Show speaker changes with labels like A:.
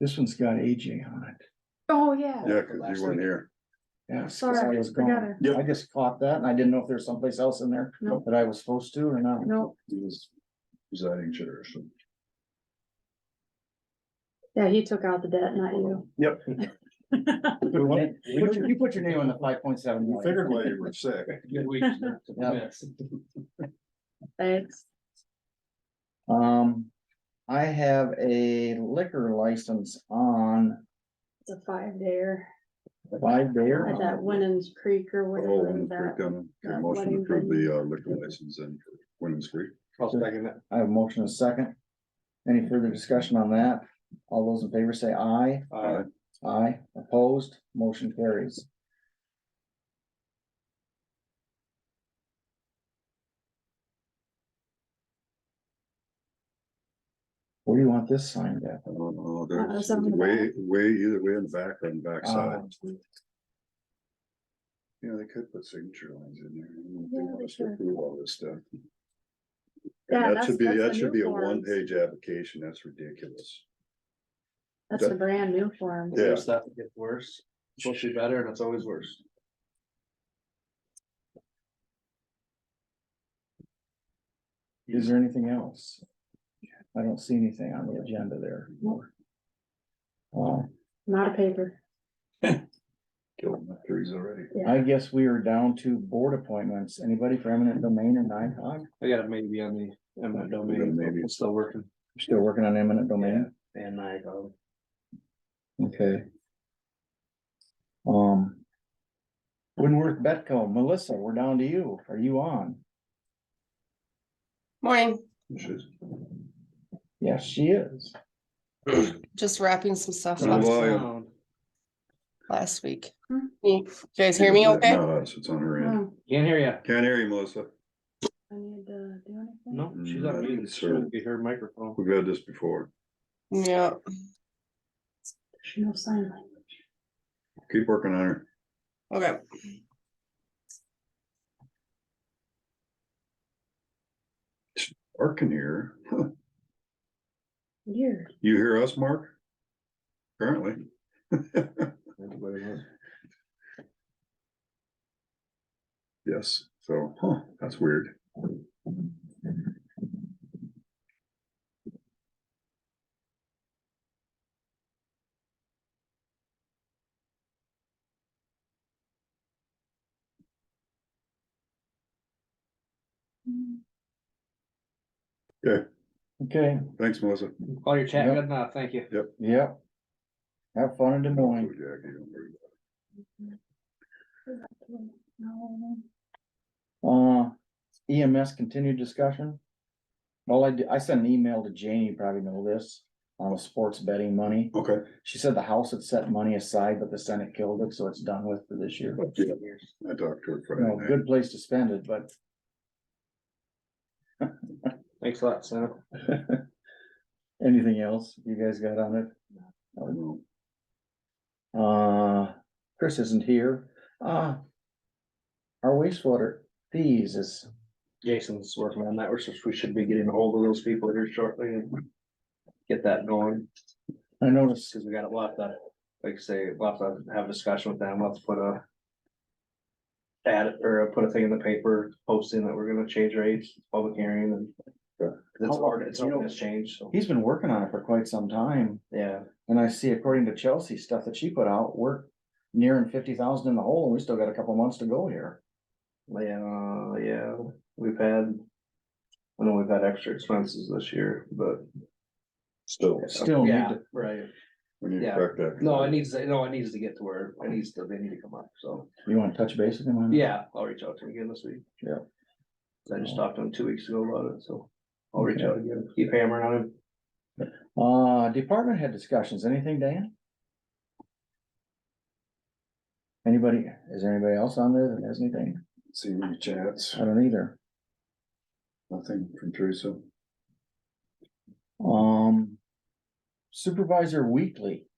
A: This one's got AJ on it.
B: Oh, yeah.
C: Yeah, cause you weren't here.
A: Yeah,
B: Oh, Sorry,
A: I was gone.
B: forgot it.
C: Yep.
A: I just caught that and I didn't know if there's someplace else in there
B: No.
A: that I was supposed to or not.
B: No,
C: He was presiding chair, so.
B: yeah, he took out the debt, not you.
C: Yep.
A: Put your- You put your name on the five point seven.
C: You figured while you were sick.
D: Good week.
B: Thanks.
A: Um, I have a liquor license on
B: It's a five there
A: five there.
B: at that Winans Creek or
C: Oh,
B: whatever
C: Women's Creek,
B: that.
C: um, okay,
B: that
C: motion to
B: wedding
C: approve
B: venue.
C: the uh, liquor license in Women's Creek.
D: I'll second that.
A: I have a motion and a second. Any further discussion on that? All those in favor say aye.
D: Uh,
A: Aye, opposed, motion carries. Where do you want this signed at?
C: I don't know,
B: Uh,
C: there's
B: it's on the
C: way, way, either way in the back or in the backside.
A: Uh,
C: You know, they could put signature lines in there. I don't know if
B: Yeah,
C: they
B: they
C: want us to
B: could.
C: approve all this stuff.
B: Yeah,
C: And that
B: that's-
C: should be,
B: that's
C: that
B: the
C: should
B: new
C: be a
B: forms.
C: one-page application. That's ridiculous.
B: That's the brand new form.
C: Yeah.
D: there's stuff that gets worse, It's supposed to be better, and it's always worse.
A: Is there anything else? I don't see anything on the agenda there.
B: Nope.
A: Uh,
B: Not a paper.
C: Killed my trees already.
A: I guess we are down to board appointments. Anybody for eminent domain and NICOG?
D: I got it maybe on the, I'm not domain,
C: Maybe.
D: it's still working.
A: Still working on eminent domain?
D: And I go.
A: Okay. Um. Winworth Betco, Melissa, we're down to you. Are you on?
E: Morning,
C: Which is-
A: Yes, she is.
E: just wrapping some stuff
C: Hello.
E: up
D: Sound.
E: last week.
B: Hmm.
E: You guys hear me okay?
C: Not us, it's on her end.
B: Oh,
D: Can't hear ya.
C: Can't hear you, Melissa.
B: I need to do anything?
D: No, she's
C: Mm, I
D: on
C: think
D: mute,
C: so.
D: she'll get her microphone.
C: We've had this before.
E: Yeah,
B: There's No sign language.
C: Keep working on her.
E: okay.
C: Mark can hear. her.
B: Weird.
C: You hear us, Mark? Apparently.
D: Everybody else.
C: Yes, so, huh, that's weird.
A: Okay,
C: Thanks, Melissa.
D: Call your chat,
A: Yep.
D: good enough, thank you.
A: yep. Have fun in Des Moines.
C: Jackie, don't worry about
B: No.
A: Uh, EMS continued discussion. Well, I, did- I sent an email to Janie, you probably know this, on the sports betting money.
C: it. Okay.
A: She said the House had set money aside, but the Senate killed it, so it's done with for this year.
C: Yeah, I talked to her Friday
D: Oh,
A: No,
C: night.
A: good place to spend it, but
D: Thanks a lot, Sam.
A: anything else you guys got on it?
C: I know.
A: Uh, Chris isn't here. Uh. Our wastewater fees is,
D: Jason's working on that, we're, supposed- we should be getting a hold of those people here shortly and get that going,
A: I noticed,
D: because we got a lot to, like I say, lot to have a discussion with them, let's put a ad, or put a thing in the paper posting that we're gonna change rates, public hearing and 'cause it's hard, it's
A: You know-
D: hard to change, so,
A: he's been working on it for quite some time.
D: yeah.
A: And I see according to Chelsea, stuff that she put out, we're nearing fifty thousand in the hole, and we still got a couple months to go here.
D: Yeah, yeah, we've had, I know we've had extra expenses this year, but.
C: Still,
A: Still need
D: Yeah,
A: to,
D: Right,
C: we need to
D: Yeah.
C: correct that.
D: no, it needs, no, it needs to get to where, it needs to, they need to come up, so.
A: you wanna touch base with him on? that?
D: Yeah, I'll reach out to him again this week.
A: Yeah.
D: I just talked to him two weeks ago about it, so I'll reach out again, keep hammering on him.
A: Uh, department head discussions, anything, Dan? Anybody, is there anybody else on there that has anything?
C: See any chats,
A: I don't either.
C: nothing from Teresa.
A: Um. Supervisor Weekly,